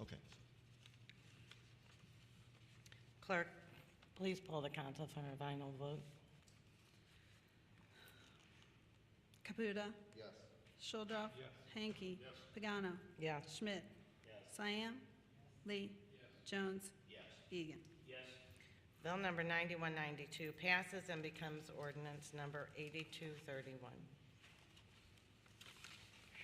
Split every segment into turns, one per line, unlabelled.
Okay.
Clerk, please pull the council for a final vote.
Caputa.
Yes.
Shuldorff. Hanky. Pagano.
Yes.
Schmidt. Siam. Lee. Jones. Egan.
Bill number 9192 passes and becomes ordinance number 8231.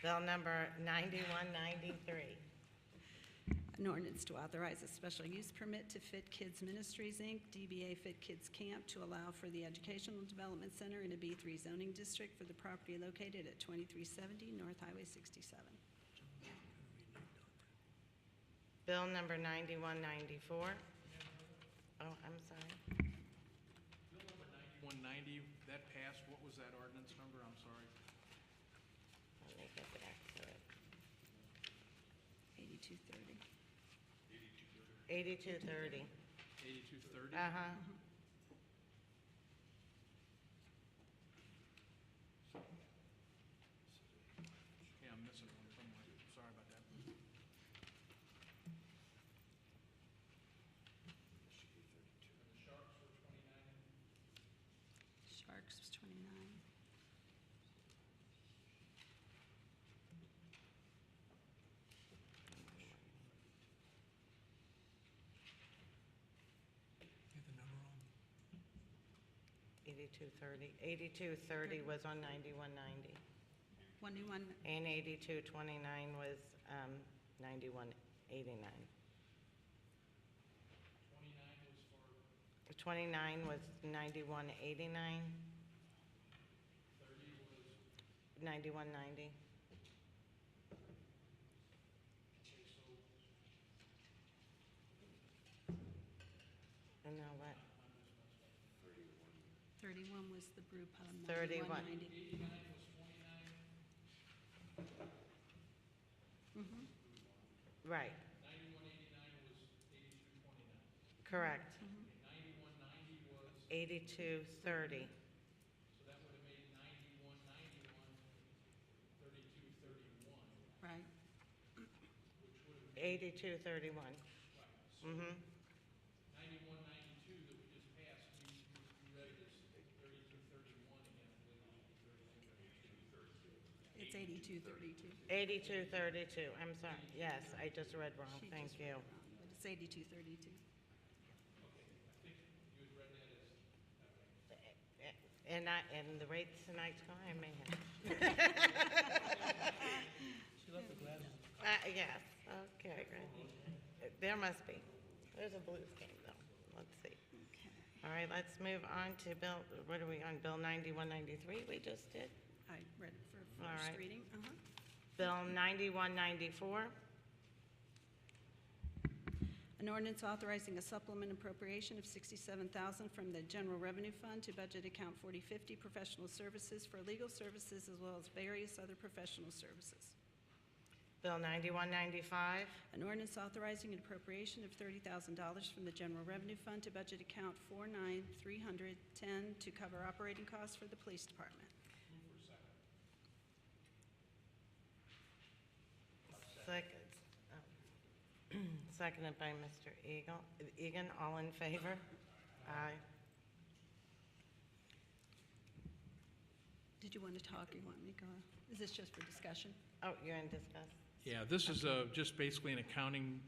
Bill number 9193.
An ordinance to authorize a special use permit to Fit Kids Ministries, Inc., DBA Fit Kids Camp, to allow for the Educational Development Center in a B3 zoning district for the property located at 2370 North Highway 67.
Bill number 9194. Oh, I'm sorry.
190, that passed, what was that ordinance number, I'm sorry?
Let me get back to it.
8230.
8230.
8230?
Uh-huh.
Yeah, I'm missing one somewhere, sorry about that.
Sharks was 29.
Get the number on.
8230. 8230 was on 9190.
One new one,
And 8229 was um, 9189. 29 was 9189. 30 was? 9190. And now what?
31 was the um, brew pub,
31.
9190. Mm-hmm,
Right. 9189 was 8229. Correct.
mm-hmm,
9190 was? 8230.
Right,
8231. Mm-hmm.
it's 8232.
8232, I'm sorry, yes, I just read wrong, thank you.
But Um, it's 8232.
And I, and the rate tonight's going, I may have.
She left the glasses.
Uh, yes, okay, great. There must be. There's a Blues game though, let's see.
Okay.
All right, let's move on to Bill, what are we on, Bill 9193 we just did?
I read it for
All
first
right.
reading. Uh-huh.
Bill 9194,
An ordinance authorizing a supplement appropriation of 67000 from the General Revenue Fund to budget account 4050 professional services for legal services as well as various other professional services.
Bill 9195,
An ordinance authorizing an appropriation of $30,000 from the General Revenue Fund to budget account 49310 to cover operating costs for the police department.
second, oh. seconded by Mr. Eagle, Egan, all in favor? Aye.
Did you want to talk? You want me to go? Is this just for discussion?
Oh, you're in discuss.
Yeah, this is uh, just basically an accounting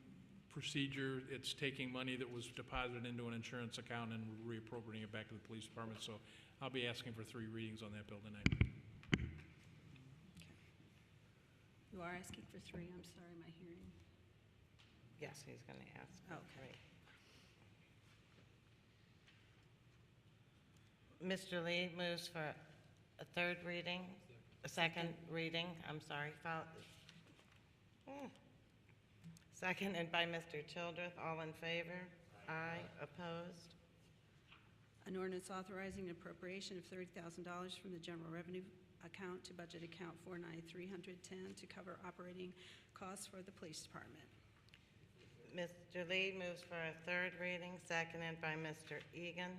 procedure. It's taking money that was deposited into an insurance account and reappropriating it back to the police department. So I'll be asking for three readings on that bill tonight.
You are asking for three. I'm sorry, my hearing.
Yes, he's going to ask. for
Okay.
three. Mr. Lee moves for a third reading, a second reading, I'm sorry. fol- Mm. Seconded by Mr. Childreth, all in favor? Aye, opposed?
An ordinance authorizing an appropriation of $30,000 from the general revenue account to budget account 49310 to cover operating costs for the police department.
Mr. Lee moves for a third reading, seconded by Mr. Egan.